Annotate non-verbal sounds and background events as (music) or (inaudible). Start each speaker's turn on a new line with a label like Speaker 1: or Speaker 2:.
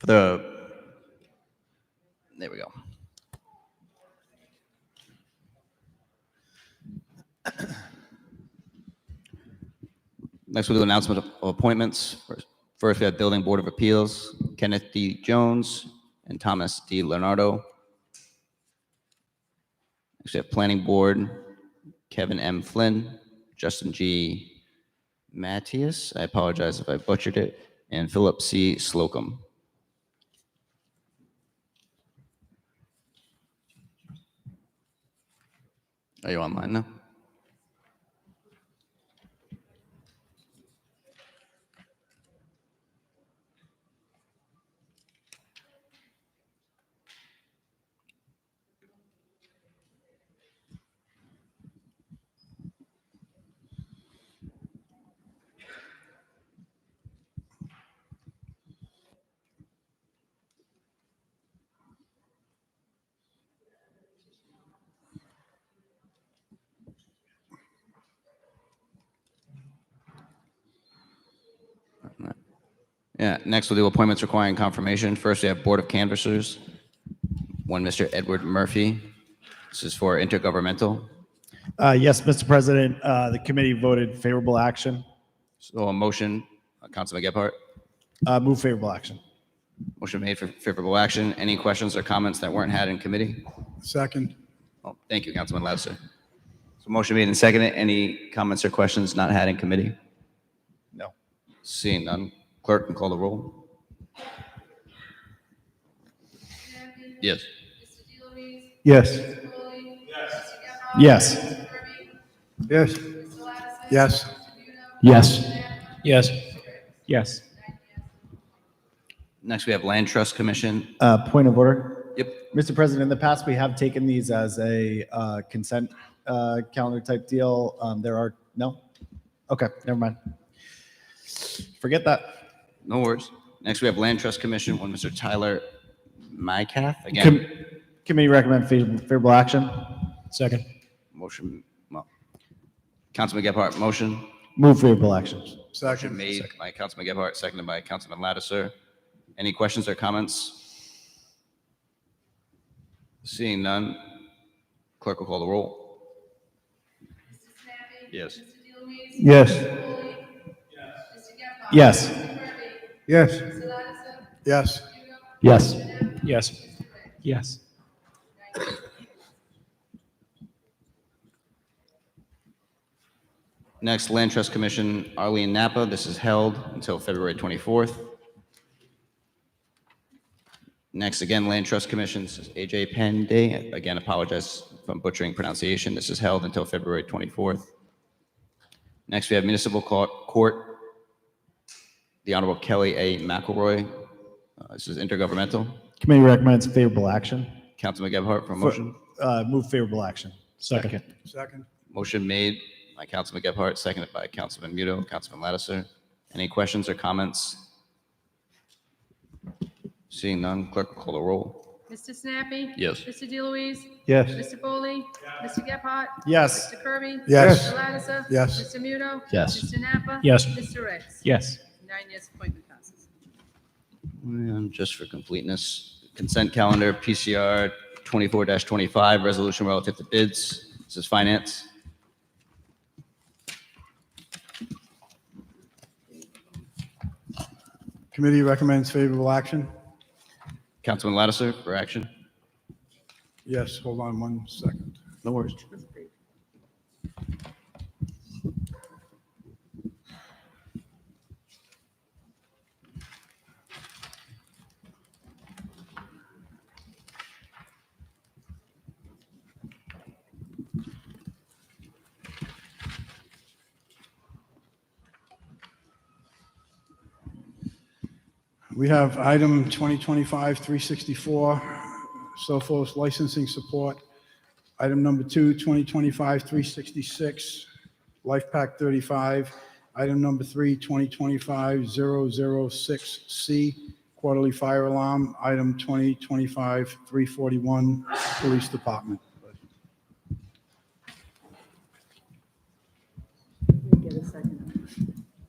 Speaker 1: The, there we go. (coughs) Next, we'll do announcement of- of appointments. First- First, we have Building Board of Appeals, Kenneth D. Jones and Thomas D. Leonardo. Next, we have Planning Board, Kevin M. Flynn, Justin G. Matthias, I apologize if I butchered it, and Philip C. Slocum. Are Oh, you online now? Yeah, next we'll do appointments requiring confirmation. First, we have Board of Canvassers, one Mr. Edward Murphy. This is for intergovernmental.
Speaker 2: Uh, Yes, Mr. President, uh, the committee voted favorable action.
Speaker 1: So a motion, uh, Councilman Gephardt,
Speaker 2: Uh, Move favorable action.
Speaker 1: motion made for favorable action. Any questions or comments that weren't had in committee?
Speaker 3: Second.
Speaker 1: Oh, Thank you, Councilman Lauser. So motion made and seconded. Any comments or questions not had in committee?
Speaker 2: No.
Speaker 1: Seeing none, clerk can call the roll. Yes.
Speaker 4: Mr. DeLuise?
Speaker 2: Yes.
Speaker 4: Mr. Foley? Yes. Mr. Gephardt?
Speaker 2: Yes.
Speaker 4: Mr. Kirby?
Speaker 3: Yes.
Speaker 4: Mr. Lattiser?
Speaker 3: Yes.
Speaker 4: Mr. Nudo?
Speaker 2: Yes.
Speaker 5: Yes. Yes.
Speaker 1: Next, we have Land Trust Commission.
Speaker 2: Uh, Point of order.
Speaker 1: Yep,
Speaker 2: Mr. President, in the past, we have taken these as a uh, consent uh, calendar type deal. Um, There are, no? Okay, never mind. Forget that.
Speaker 1: No worries. Next, we have Land Trust Commission, one Mr. Tyler Mycath. Again,
Speaker 2: Com- Committee recommend favorable favorable action.
Speaker 5: Second.
Speaker 1: motion, well, Councilman Gephardt, motion
Speaker 2: Move favorable actions.
Speaker 3: Second.
Speaker 1: made by Councilman Gephardt, seconded by Councilman Lattiser. Any questions or comments? Seeing none, clerk will call the roll.
Speaker 4: Mr. Snappy.
Speaker 1: Yes.
Speaker 4: Mr. DeLuise?
Speaker 2: Yes.
Speaker 4: Mr. Foley? Yes.
Speaker 2: Yes.
Speaker 4: Mr. Gephardt? Mr. Kirby?
Speaker 3: Yes.
Speaker 4: Mr. Lattiser?
Speaker 3: Yes.
Speaker 4: Mr. Nudo?
Speaker 2: Yes.
Speaker 5: Yes. Yes.
Speaker 1: Next, Land Trust Commission, Arlene Napa. This is held until February 24th. Next, again, Land Trust Commission, this is AJ Penday. Again, apologize if I'm butchering pronunciation. This is held until February 24th. Next, we have Municipal Co- Court, the Honorable Kelly A. McElroy. Uh, This is intergovernmental.
Speaker 2: Committee recommends favorable action.
Speaker 1: Councilman Gebhardt for a motion.
Speaker 2: Uh, Move favorable action. Second.
Speaker 3: Second.
Speaker 1: Motion made by Councilman Gebhardt, seconded by Councilman Muto, Councilman Lattiser. Any questions or comments? Seeing none, clerk will call the roll.
Speaker 4: Mr. Snappy.
Speaker 1: Yes.
Speaker 4: Mr. DeLuise.
Speaker 2: Yes.
Speaker 4: Mr. Foley. Mr. Gephardt.
Speaker 2: Yes.
Speaker 4: Mr. Kirby.
Speaker 3: Yes.
Speaker 4: Mr. Lattiser.
Speaker 3: Yes.
Speaker 4: Mr. Muto.
Speaker 2: Yes.
Speaker 4: Mr. Napa.
Speaker 5: Yes.
Speaker 4: Mr. Ricks.
Speaker 5: Yes.
Speaker 4: Nine yes, appointment passes.
Speaker 1: And just for completeness, consent calendar, PCR 24-25, resolution relative to bids. This is finance.
Speaker 3: Committee recommends favorable action.
Speaker 1: Councilman Lattiser for action.
Speaker 3: Yes, hold on one second.
Speaker 1: No worries.
Speaker 3: We have item 2025-364, Sophos licensing support. Item number two, 2025-366, Life Pack 35. Item number three, 2025-006C, quarterly fire alarm. Item 2025-341, Police Department.